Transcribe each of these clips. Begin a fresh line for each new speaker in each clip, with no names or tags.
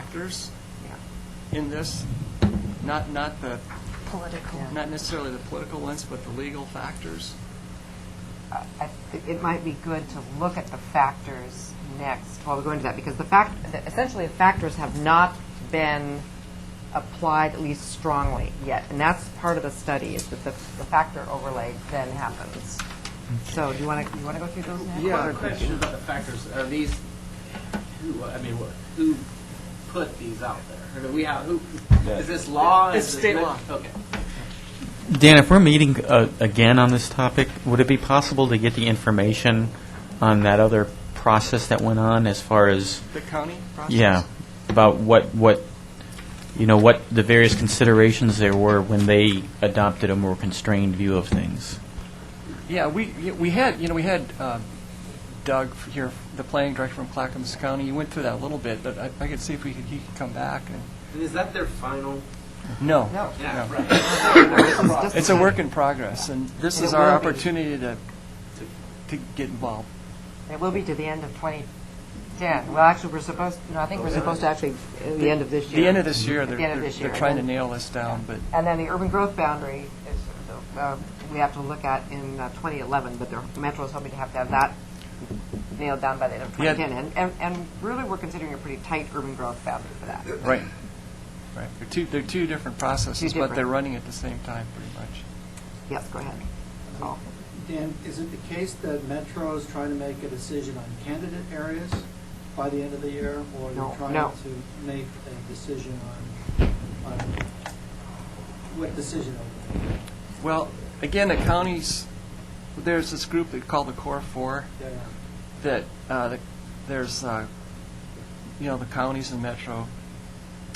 factors
Yeah.
in this, not, not the,
Political.
not necessarily the political ones, but the legal factors.
I- I thi- it might be good to look at the factors next while we go into that, because the fact, the- essentially, the factors have not been applied at least strongly yet, and that's part of the study, is that the, the factor overlay then happens. So do you want to, you want to go through those next?
Yeah,
Or-
a question about the factors, are these, who, I mean, what- who put these out there? Or do we have, who, is this law?
It's
Is it-
state law.
Okay.
Dan, if we're meeting uh, again on this topic, would it be possible to get the information on that other process that went on as far as,
The county process?
yeah, about what, what, you know, what the various considerations there were when they adopted a more constrained view of things?
Yeah, we, we had, you know, we had uh, Doug here, the planning director from Clackamas County, you went through that a little bit, but I, I could see if we could, he could come back and,
And is that their final?
no.
No.
Yeah,
No.
right.
It's a work in progress, and this
And
is
it
our
will be.
opportunity to, to get involved.
It will be to the end of 2010. Well, actually, we're supposed, no, I think we're supposed to actually, uh, the end of this year.
The end of this year,
At
they're,
the end of
they're
this year.
they're trying to
And then-
nail this down, but
And then the urban growth boundary is, uh, we have to look at in uh, 2011, but the Metro is hoping to have to have that nailed down by the end of
Yeah.
2010. And- And, and really, we're considering a pretty tight urban growth boundary for that.
Right. Right. They're two, they're two different processes,
Two
but they're
different.
running at the same time, pretty much.
Yes, go ahead.
Oh.
So,
Dan, is it the case that Metro is trying to make a decision on candidate areas by the end of the year? Or
No,
they're trying
no.
to make a decision on, on what decision? are we making?
Well, again, the counties, there's this group they call the Core Four,
Yeah, yeah.
that, uh, the- there's, uh, you know, the counties and Metro,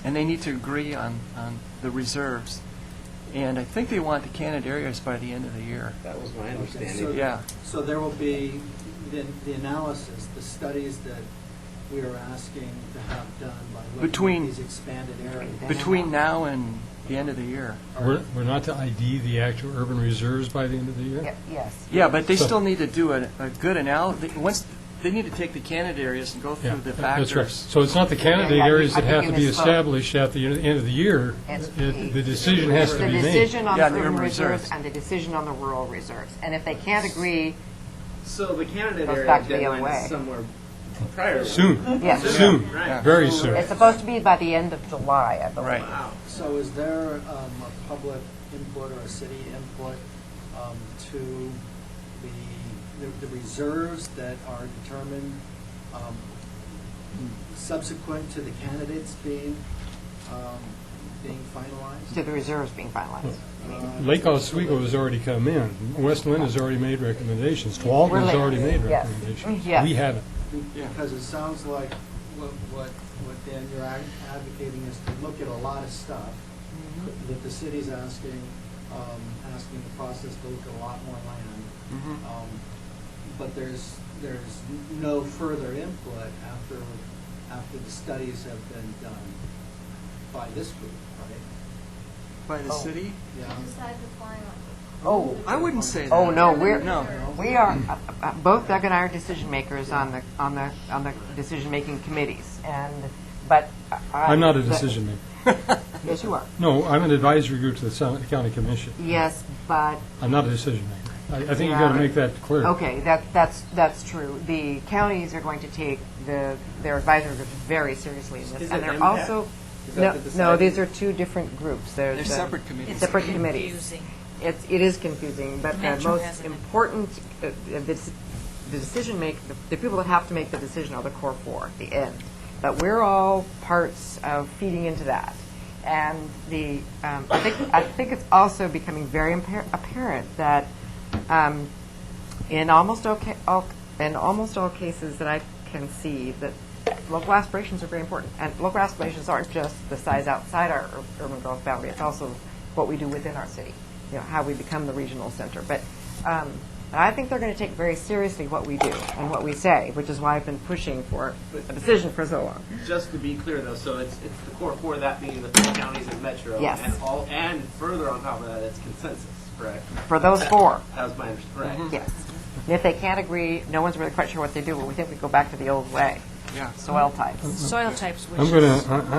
and they need to agree on, on the reserves. And I think they want the candidate areas by the end of the year.
That was my
Okay,
understanding.
so-
Yeah.
So there will be the, the analysis, the studies that we are asking to have done by looking
Between-
at these expanded areas.
Between now and the end of the year.
We're, we're not to ID the actual urban reserves by the end of the year?
ye- yes.
Yeah, but they
So-
still need to do a, a good analysis, once, they need to take the candidate areas and go
Yeah,
through the
that- that's
factors.
right. So it's not the candidate
Yeah, I
areas that
think- I
have
think
to
you
be
misspoke.
established at the end of the year.
It's
It- The decision has to be
The
made.
decision on the
Yeah, the
urban
urban
reserves
reserves.
and the decision on the rural reserves. And if they can't agree,
So the candidate
Goes
area
back to the other
deadline
way.
is somewhere prior.
Soon,
yes.
soon,
Right.
very soon.
It's supposed to be by the end of July, I believe.
Right.
Wow.
So is there um, a public input or a city input um, to the, the- the reserves that are determined um, subsequent to the candidates being, um, being
To
finalized?
the reserves being finalized.
Uh,
Lake Oswego has already come in. West Lynn has already made recommendations. Tualatin has
We're
already
late.
made
Yes.
recommendations.
Yes.
We haven't.
Because it sounds like what, what, what Dan, you're ad- advocating is to look at a lot of stuff that the city's asking, um, asking the process to look at a lot more land.
Mhm.
Um, But there's, there's no further input after, after the studies have been done by this group, right?
By the city?
Yeah.
decide the final.
Oh,
I wouldn't say that.
Oh, no, we're,
No.
we are, uh, uh, both Doug and I are decision makers on the, on the, on the decision-making committees, and, but I...
I'm not a
but-
decision maker.
Yes, you are. So-
No, I'm an advisory group to the Sou- county commission.
Yes, but,
I'm not a decision maker. I, I think you've got to
Yeah.
make that clear.
okay, that, that's, that's true. The counties are going to take the, their advisory groups very seriously in this,
Is
and
it
they're
MPAC?
also...
Is that
No,
the
no,
deciding-
these are two different groups. There's
They're
the-
separate committees. It's
Separate committees.
confusing.
It's, it is confusing, but the
Metro has
most
an-
important, uh, uh, the dec- the decision make, the- the people that have to make the decision are the core four, the end. But we're all parts of feeding into that. And the, um, I think, I think it's also becoming very impar- apparent that um, in almost all, ca- all, in almost all cases that I can see, that local aspirations are very important. And local aspirations aren't just the size outside our ur- urban growth boundary, it's also what we do within our city, you know, how we become the regional center. But um, and I think they're going to take very seriously what we do and what we say, which is why I've been pushing for a decision for so long.
Just to be clear though, so it's, it's the core four, that being the three counties and Metro.
Yes.
And all, and further on top of that, it's consensus, correct?
For those four,
That was my
Mm-hmm.
understanding, right?
yes. And if they can't agree, no one's really quite sure what they do, but we think we go back to the old way.
Yeah.
soil types.
soil types, which
I'm going
is-
to,